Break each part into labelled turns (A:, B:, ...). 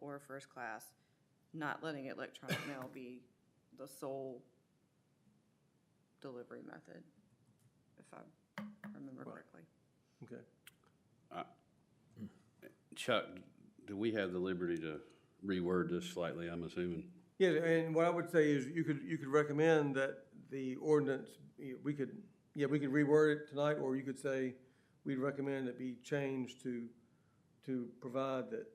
A: or first class, not letting electronic mail be the sole delivery method, if I remember correctly.
B: Okay.
C: Chuck, do we have the liberty to reword this slightly, I'm assuming?
B: Yeah, and what I would say is you could, you could recommend that the ordinance, eh, we could, yeah, we could reword it tonight, or you could say, we'd recommend it be changed to, to provide that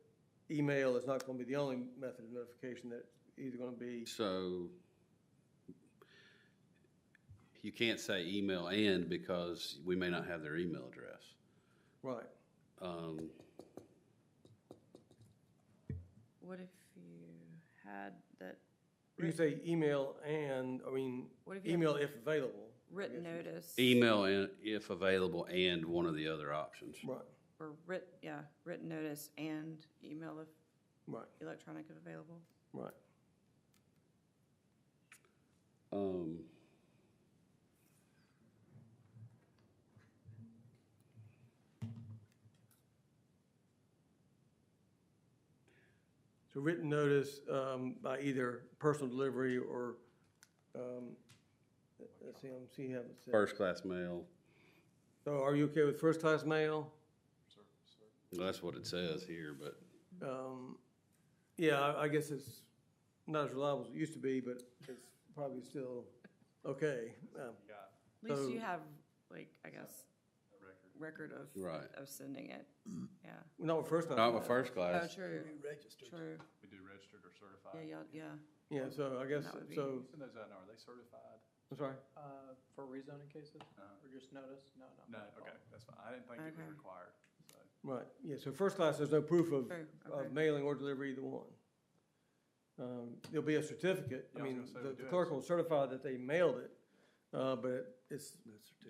B: email is not gonna be the only method of notification, that it's either gonna be,
C: So you can't say email and because we may not have their email address.
B: right.
C: Um,
A: What if you had that
B: You could say email and, I mean,
A: What if you have-
B: email if available,
A: written notice?
C: Email and, if available, and one of the other options.
B: right,
A: Or writ, yeah, written notice and email if
B: right,
A: electronic if available?
B: right.
C: Um,
B: So written notice, um, by either personal delivery or, um, let's see, I'm seeing, how it says.
C: first class mail,
B: So are you okay with first-class mail?
C: that's what it says here, but
B: Um, yeah, I, I guess it's not as reliable as it used to be, but it's probably still okay. Um,
A: At least you
B: So-
A: have, like, I guess, record of,
C: Right.
A: of sending it, yeah.
B: Not with first-class.
C: not with
B: mail.
C: first
A: Oh,
C: class.
A: true. True,
D: We do registered or
A: yeah,
D: certified.
A: yeah, yeah,
B: Yeah, so I guess,
A: That would be-
B: so,
D: Send those out now, are they certified?
B: I'm sorry.
E: Uh, for rezoning cases, or just notice? No, no.
D: Uh, No, okay, that's fine, I didn't think it was
A: Okay.
D: required, so.
B: Right, yeah, so first class, there's no proof of,
A: True, okay.
B: of mailing or delivery, either one. Um, there'll be a certificate, I
D: Yeah, I was
B: mean,
D: gonna say we
B: the
D: do
B: the
D: have
B: clerk
D: a
B: will certify that they mailed it, uh, but it- it's,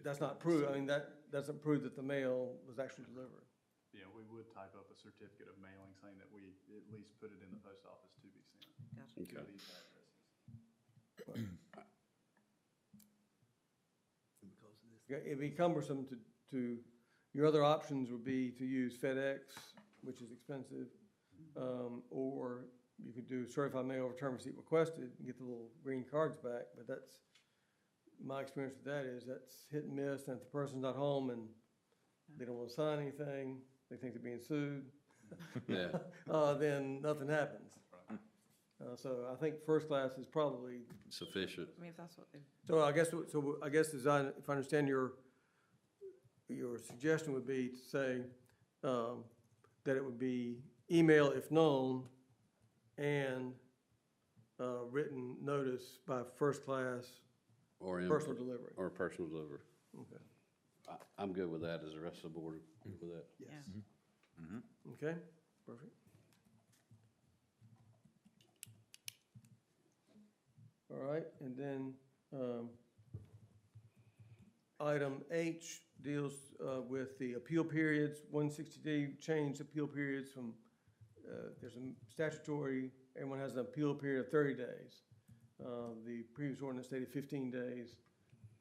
B: that's not proof, I mean, that doesn't prove that the mail was actually delivered.
D: Yeah, we would type up a certificate of mailing saying that we at least put it in the post office to be sent
A: gotcha.
D: to
C: Okay.
D: these addresses.
B: Yeah, It'd be cumbersome to, to, your other options would be to use FedEx, which is expensive, um, or you could do certified mail return receipt requested and get the little green cards back, but that's, my experience with that is that's hit and miss, and if the person's not home and they don't wanna sign anything, they think they're being sued,
C: Yeah,
B: uh, then nothing happens. Uh, so I think first class is probably
C: sufficient.
A: I mean, if that's what, if
B: so I guess, so I guess as I, if I understand your, your suggestion would be to say, um, that it would be email if known and, uh, written notice by first class
C: Or in,
B: personal delivery.
C: or personal delivery.
B: Okay.
C: I, I'm good with that. Is the rest of the board good with that?
A: Yeah.
B: Okay, perfect. All right, and then, um, item H deals, uh, with the appeal periods, one sixty D changed appeal periods from, uh, there's a statutory, everyone has an appeal period of thirty days. Uh, the previous ordinance stated fifteen days,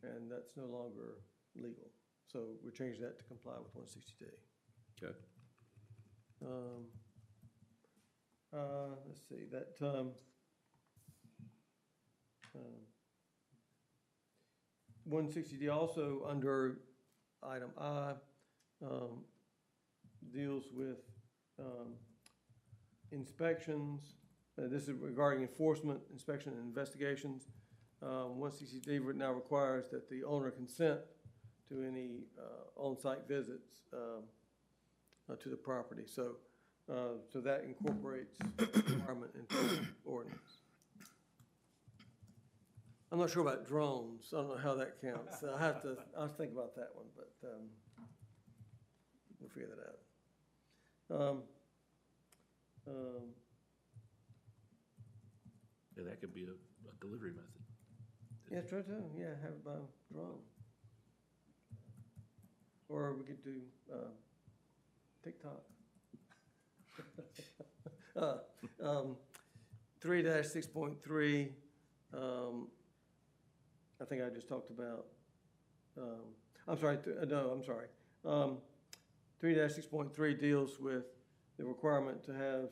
B: and that's no longer legal. So we're changing that to comply with one sixty D.
C: Okay.
B: Um, uh, let's see, that, um, one sixty D also under item I, um, deals with, um, inspections. Uh, this is regarding enforcement, inspection, and investigations. Um, one sixty D now requires that the owner consent to any, uh, on-site visits, um, uh, to the property. So, uh, so that incorporates requirement into the ordinance. I'm not sure about drones. I don't know how that counts. I have to, I'll think about that one, but, um, we'll figure that out. Um, um,
F: Yeah, that could be a, a delivery method.
B: Yeah, true, too, yeah, have uh, it by drone. Or we could do, um, TikTok. Uh, um, Three dash six point three, um, I think I just talked about, um, I'm sorry, th- uh, no, I'm sorry. Um, Three dash six point three deals with the requirement to have